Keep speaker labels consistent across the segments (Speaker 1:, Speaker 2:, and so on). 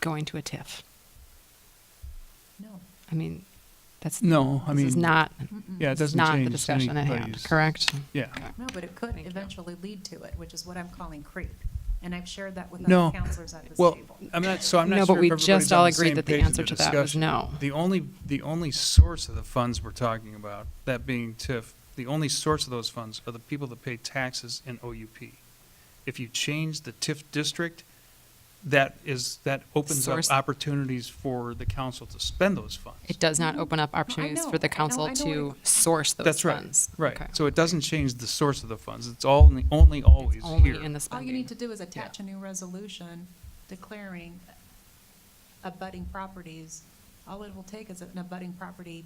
Speaker 1: going to a TIF.
Speaker 2: No.
Speaker 1: I mean, that's, this
Speaker 3: No, I
Speaker 1: is
Speaker 3: mean,
Speaker 1: not,
Speaker 3: yeah, it
Speaker 1: it's
Speaker 3: doesn't
Speaker 1: not the
Speaker 3: change
Speaker 1: discussion at hand,
Speaker 3: anybody's-
Speaker 1: correct?
Speaker 3: Yeah.
Speaker 2: No, but it could
Speaker 1: Thank you.
Speaker 2: eventually lead to it, which is what I'm calling creep. And I've shared that with
Speaker 3: No.
Speaker 2: other counselors at this
Speaker 3: Well,
Speaker 2: table.
Speaker 3: I'm not, so I'm
Speaker 1: No,
Speaker 3: not
Speaker 1: but
Speaker 3: sure if
Speaker 1: we
Speaker 3: everybody's
Speaker 1: just
Speaker 3: on
Speaker 1: all
Speaker 3: the
Speaker 1: agreed
Speaker 3: same
Speaker 1: that the
Speaker 3: page of
Speaker 1: answer to that was
Speaker 3: discussion.
Speaker 1: no.
Speaker 3: The only, the only source of the funds we're talking about, that being TIF, the only source of those funds are the people that pay taxes in OUP. If you change the TIF district, that is, that opens up
Speaker 1: Source-
Speaker 3: opportunities for the council to spend those funds.
Speaker 1: It does not open up opportunities
Speaker 2: know,
Speaker 1: for the
Speaker 2: I know,
Speaker 1: council
Speaker 2: I know
Speaker 1: to
Speaker 2: what
Speaker 1: source those
Speaker 3: That's right,
Speaker 1: funds.
Speaker 3: Right,
Speaker 1: Okay.
Speaker 3: so it doesn't change the source of the funds, it's all, only- only always
Speaker 1: Only
Speaker 3: here.
Speaker 1: in the
Speaker 2: All you need to
Speaker 1: spending.
Speaker 2: do is attach a new resolution declaring abutting properties. All it will take is an abutting property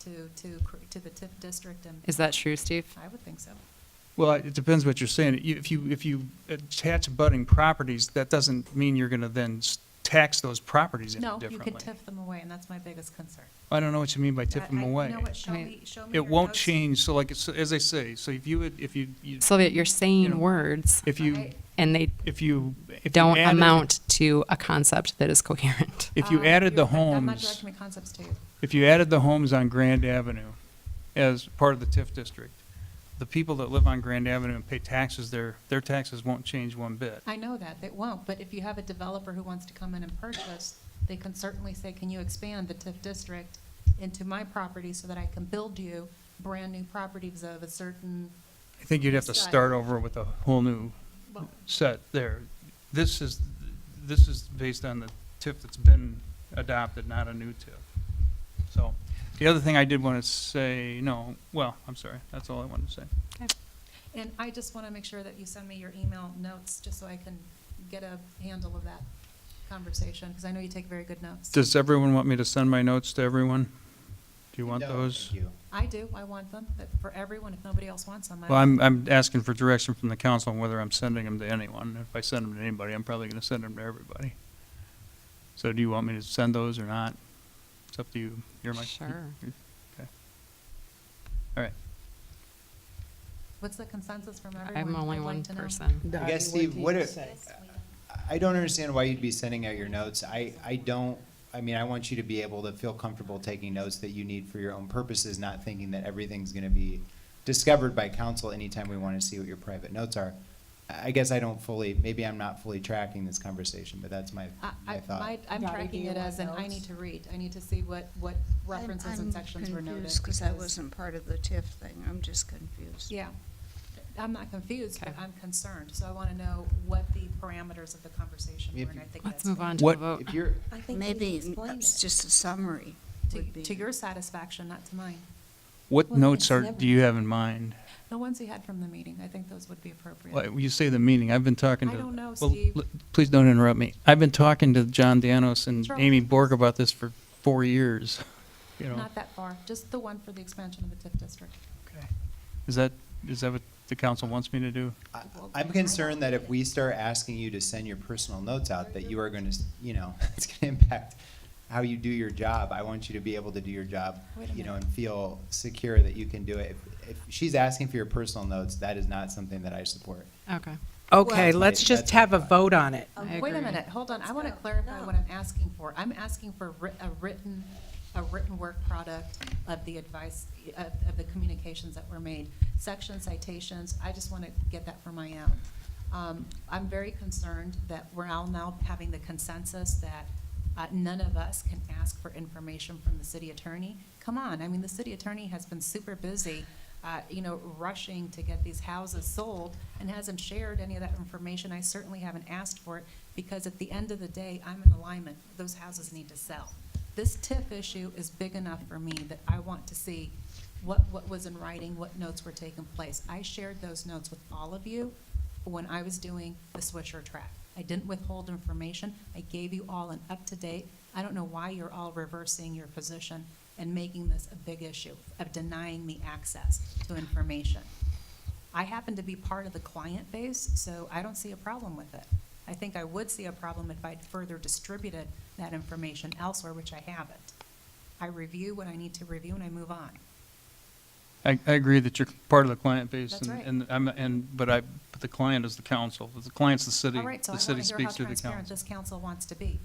Speaker 2: to, to, cr- to the TIF district and
Speaker 1: Is that true, Steve?
Speaker 2: I would think so.
Speaker 3: Well, it depends what you're saying. You- If you, if you attach budding properties, that doesn't mean you're gonna then s- tax those properties any
Speaker 2: No, you could
Speaker 3: differently.
Speaker 2: TIF them away and that's my biggest concern.
Speaker 3: I don't know what you mean by
Speaker 2: I-
Speaker 3: tip them
Speaker 2: I- you
Speaker 3: away.
Speaker 2: know what, show
Speaker 1: I mean,
Speaker 2: me- show me
Speaker 3: It
Speaker 2: your
Speaker 3: won't
Speaker 2: notes.
Speaker 3: change, so like, it's- as I say, so if you, would- if you, you-
Speaker 1: Sylvia, you're saying
Speaker 3: know,
Speaker 1: words
Speaker 3: if you,
Speaker 2: I-
Speaker 1: and they
Speaker 3: if you. if you
Speaker 1: don't
Speaker 3: added-
Speaker 1: amount to a concept that is coherent.
Speaker 3: If you
Speaker 2: Um,
Speaker 3: added the
Speaker 2: you're correct. I'm not
Speaker 3: homes,
Speaker 2: directing my concepts to you.
Speaker 3: if you added the homes on Grand Avenue as part of the TIF district, the people that live on Grand Avenue and pay taxes there, their taxes won't change one bit.
Speaker 2: I know that, it won't, but if you have a developer who wants to come in and purchase, they can certainly say, can you expand the TIF district into my property so that I can build you brand-new properties of a certain,
Speaker 3: I think you'd have to
Speaker 2: That's right.
Speaker 3: start over with a whole new
Speaker 2: well,
Speaker 3: set there. This is, this is based on the TIF that's been adopted, not a new TIF. So, the other thing I did want to say, no, well, I'm sorry, that's all I wanted to say.
Speaker 2: and I just want to make sure that you send me your email notes, just so I can get a handle of that conversation, because I know you take very good notes.
Speaker 3: Does everyone want me to send my notes to everyone? Do you want
Speaker 4: No,
Speaker 3: those?
Speaker 4: thank you.
Speaker 2: I do, I want them, but for everyone, if nobody else wants them,
Speaker 3: Well,
Speaker 2: I,
Speaker 3: I'm, I'm asking for direction from the council on whether I'm sending them to anyone. If I send them to anybody, I'm probably going to send them to everybody. So do you want me to send those or not? It's up to you. You're my.
Speaker 1: Sure.
Speaker 3: Okay. All right.
Speaker 2: what's the consensus from everyone?
Speaker 1: I'm only
Speaker 2: I'd like
Speaker 1: one
Speaker 2: to know.
Speaker 1: person.
Speaker 4: I guess, Steve, what, if- I don't understand why you'd be sending out your notes. I, I don't, I mean, I want you to be able to feel comfortable taking notes that you need for your own purposes, not thinking that everything's gonna be discovered by council anytime we wanna see what your private notes are. I I guess I don't fully, maybe I'm not fully tracking this conversation, but that's my,
Speaker 2: I,
Speaker 4: my
Speaker 2: I, my,
Speaker 4: thought.
Speaker 2: I'm
Speaker 5: Dottie, do
Speaker 2: tracking
Speaker 5: you
Speaker 2: it
Speaker 5: want
Speaker 2: as, an I need
Speaker 5: notes?
Speaker 2: to read, I need to see what, what references and sections were noted.
Speaker 5: Because that wasn't part of the TIF thing, I'm just confused.
Speaker 2: Yeah, I'm not confused, but
Speaker 1: Okay.
Speaker 2: I'm concerned, so I wanna know what the parameters of the conversation
Speaker 4: I
Speaker 2: were,
Speaker 4: mean, if
Speaker 2: and I think that's.
Speaker 1: Let's move on to
Speaker 3: What-
Speaker 1: the vote.
Speaker 4: If you're,
Speaker 6: I think they
Speaker 5: Maybe
Speaker 6: need to explain
Speaker 5: it's
Speaker 6: it.
Speaker 5: just a summary
Speaker 2: To,
Speaker 5: would be.
Speaker 2: to your satisfaction, not to mine.
Speaker 3: What
Speaker 6: Well,
Speaker 3: notes
Speaker 6: it's
Speaker 3: are,
Speaker 6: never-
Speaker 3: do you have in mind?
Speaker 2: The ones he had from the meeting, I think those would be appropriate.
Speaker 3: Well, you say the meeting, I've been talking
Speaker 2: I
Speaker 3: to.
Speaker 2: don't know,
Speaker 3: well,
Speaker 2: Steve.
Speaker 3: l- Please don't interrupt me. I've been talking to John Danos and
Speaker 2: Sure.
Speaker 3: Amy Borg about this for four years, you know.
Speaker 2: Not that far, just the one for the expansion of the TIF district.
Speaker 3: Okay. Is that, is that what the council wants me to do?
Speaker 4: I- I'm concerned that if we start asking you to send your personal notes out, that you are gonna, s- you know, it's gonna impact how you do your job. I want you to be able to do your job,
Speaker 2: Wait a
Speaker 4: you know,
Speaker 2: minute.
Speaker 4: and feel secure that you can do it. If- If she's asking for your personal notes, that is not something that I support.
Speaker 1: Okay.
Speaker 7: Okay,
Speaker 4: Well-
Speaker 7: let's just have a vote on it.
Speaker 1: I
Speaker 2: Um, Wait a
Speaker 1: agree.
Speaker 2: minute, hold on, I wanna
Speaker 6: go.
Speaker 2: clarify
Speaker 6: No.
Speaker 2: what I'm asking for. I'm asking for writ- a written, a written work product of the advice, of, of the communications that were made, section citations, I just wanna get that for my own. Um, I'm very concerned that we're all now having the consensus that, uh, none of us can ask for information from the city attorney. Come on, I mean, the city attorney has been super busy, uh, you know, rushing to get these houses sold and hasn't shared any of that information. I certainly haven't asked for it because at the end of the day, I'm in alignment. Those houses need to sell. This TIF issue is big enough for me that I want to see what, what was in writing, what notes were taking place. I shared those notes with all of you when I was doing the Swisher track. I didn't withhold information. I gave you all an up-to-date. I don't know why you're all reversing your position and making this a big issue of denying me access to information. I happen to be part of the client base, so I don't see a problem with it. I think I would see a problem if I'd further distributed that information elsewhere, which I haven't. I review what I need to review and I move on.
Speaker 3: I, I agree that you're part of the client base
Speaker 2: That's
Speaker 3: and,
Speaker 2: right.
Speaker 3: and I'm, and, but I, but the client is the council. The client's the city.
Speaker 2: All right, so I
Speaker 3: The
Speaker 2: want
Speaker 3: city
Speaker 2: to hear how
Speaker 3: speaks through the
Speaker 2: transparent
Speaker 3: council.
Speaker 2: this council wants to be.